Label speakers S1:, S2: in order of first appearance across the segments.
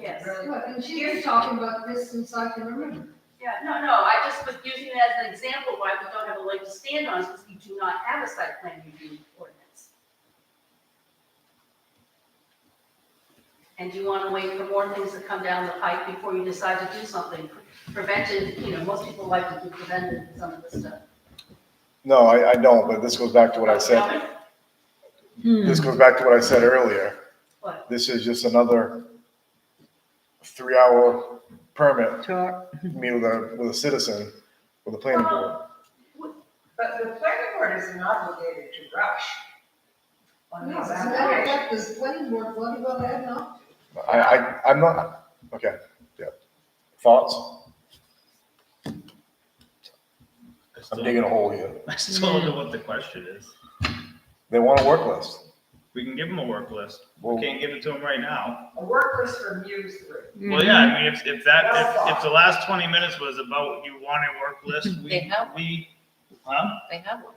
S1: Yes.
S2: Really?
S3: Look, and she's been talking about this since I can remember.
S1: Yeah, no, no, I just was using it as an example why we don't have a leg to stand on, since we do not have a site plan review ordinance. And you want to wait for more things to come down the pipe before you decide to do something. Prevention, you know, most people like to do preventive, some of this stuff.
S4: No, I, I don't, but this goes back to what I said, this goes back to what I said earlier.
S1: What?
S4: This is just another three-hour permit,
S5: Talk.
S4: meet with a, with a citizen, with a planning board.
S2: But the planning board isn't obligated to rush. On
S3: No,
S2: these
S3: as a matter of
S2: applications.
S3: fact, this planning board, bloody well had not.
S4: I, I, I'm not, okay, yeah. Thoughts?
S6: I still-
S4: I'm digging a hole here.
S6: I still don't know what the question is.
S4: They want a work list.
S6: We can give them a work list.
S4: Well,
S6: We can't give it to them right now.
S2: A work list from you three.
S6: Well, yeah, I mean, if, if that,
S2: Well,
S6: if, if the last twenty minutes was about you want a work list,
S7: They
S6: we,
S7: have
S6: we, huh?
S7: They have one.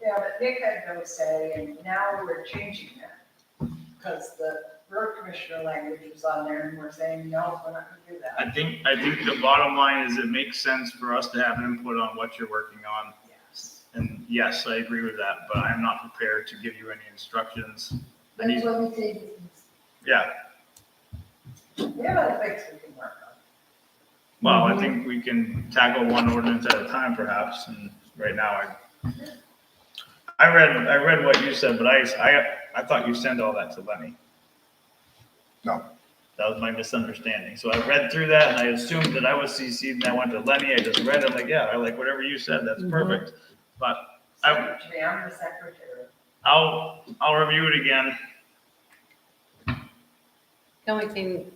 S2: Yeah, but Nick had no say, and now we're changing that. Because the road commissioner language was on there, and we're saying, no, we're not gonna do that.
S6: I think, I think the bottom line is it makes sense for us to have input on what you're working on.
S2: Yes.
S6: And yes, I agree with that, but I'm not prepared to give you any instructions. I
S3: That's
S6: need,
S3: why we take this.
S6: yeah,
S2: We have other things we can work on.
S6: well, I think we can tackle one ordinance at a time perhaps, and right now I. I read, I read what you said, but I, I, I thought you sent all that to Lenny.
S4: No.
S6: That was my misunderstanding. So I read through that and I assumed that I was CC'd and I went to Lenny. I just read it, I'm like, yeah, I like whatever you said, that's
S5: Mhm.
S6: perfect. I-
S2: Secretary, I'm the secretary.
S6: I'll, I'll review it again.
S7: The only thing,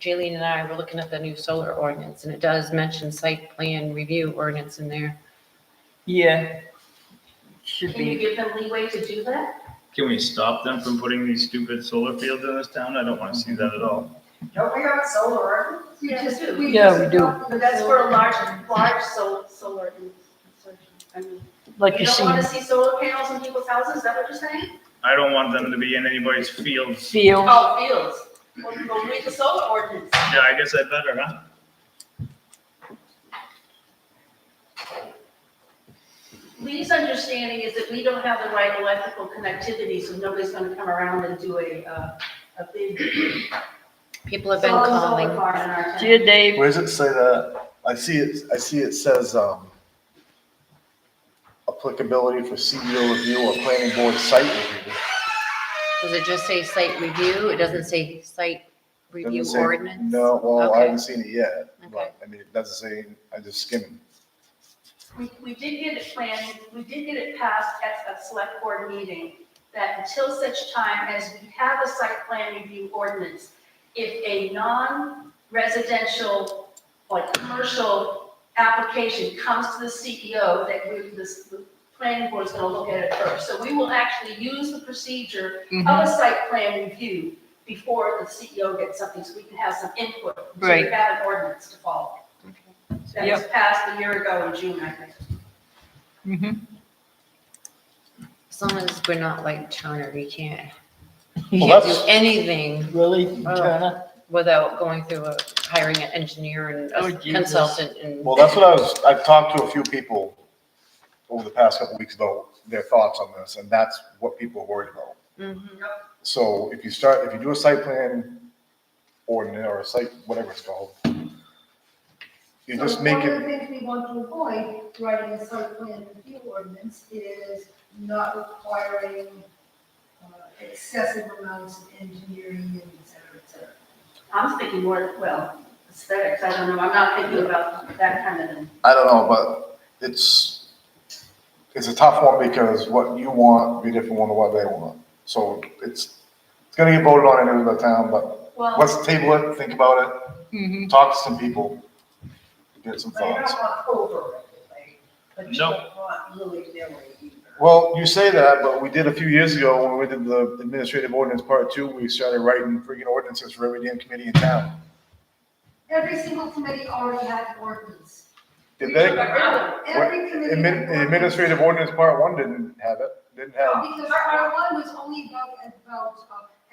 S7: Jaleen and I were looking at the new solar ordinance, and it does mention site plan review ordinance in there.
S5: Yeah. Should
S1: Can you
S5: be.
S1: give them leeway to do that?
S6: Can we stop them from putting these stupid solar fields in this town? I don't want to see that at all.
S2: Don't we have a solar ordinance?
S3: We
S1: Yeah.
S3: just-
S5: Yeah,
S3: just
S5: we do.
S3: thought that
S1: But that's for a large, large sol- solar insertion. I mean,
S5: Like
S1: you
S5: you
S1: don't
S5: see,
S1: want to see solar panels on people's houses, is that what you're saying?
S6: I don't want them to be in anybody's fields.
S5: feel,
S1: Oh, fields. Well, well, read the solar ordinance.
S6: Yeah, I guess I better, huh?
S1: Lee's understanding is that we don't have the right electrical connectivity, so nobody's gonna come around and do a, uh, a big.
S7: People have been
S1: solar- solar
S7: calling.
S1: farm in our town.
S5: see you, Dave.
S4: Where does it say that? I see it, I see it says, um, applicability for CEO review or planning board site review.
S7: Does it just say site review? It doesn't say site review
S4: Doesn't say-
S7: ordinance?
S4: No, well, I
S7: Okay.
S4: haven't seen it yet,
S7: Okay.
S4: but, I mean, it doesn't say, I just skimmed.
S1: We, we did get it planned, we did get it passed at a select board meeting, that until such time as we have a site plan review ordinance, if a non-residential, like, commercial application comes to the CEO, that we, this, the planning board's gonna look at it first. So we will actually use the procedure of a site plan review before the CEO gets something, so we can have some input. So
S5: Right.
S1: we have an ordinance to follow. That was passed a year ago in June, I think.
S5: Mhm.
S7: As long as we're not like Turner, we can't
S4: Well,
S5: Yeah.
S7: do
S4: that's-
S7: anything
S5: Really,
S7: Oh.
S5: Turner?
S7: without going through a, hiring an engineer and
S5: Oh,
S7: a
S5: Jesus.
S7: consultant and.
S4: Well, that's what I was, I've talked to a few people over the past couple weeks about their thoughts on this, and that's what people are worried about.
S7: Mhm.
S4: So if you start, if you do a site plan ordinance or a site, whatever it's called,
S3: So
S4: you just make
S3: One of the
S4: it,
S3: things we want to avoid writing a site plan review ordinance is not requiring uh, excessive amounts of engineering and et cetera, et cetera.
S1: I'm thinking more, well, aesthetics, I don't know, I'm not thinking about that kind of thing.
S4: I don't know, but it's, it's a tough one because what you want be different from what they want. So it's, it's gonna get voted on anyway by the town, but
S1: Well,
S4: let's table it, think about
S5: Mhm.
S4: it, talk to some people, get some
S2: But you
S4: thoughts.
S2: don't want overregulate, but you
S6: No.
S2: don't want willy-nilly either.
S4: Well, you say that, but we did a few years ago when we did the administrative ordinance part two, we started writing freaking ordinances for every damn committee in town.
S3: Every single committee already had ordinance.
S4: Did they?
S3: Every committee. had
S4: Admin, the
S3: ordinance.
S4: administrative ordinance part one didn't have it, didn't have,
S3: Because part one was only about, about uh,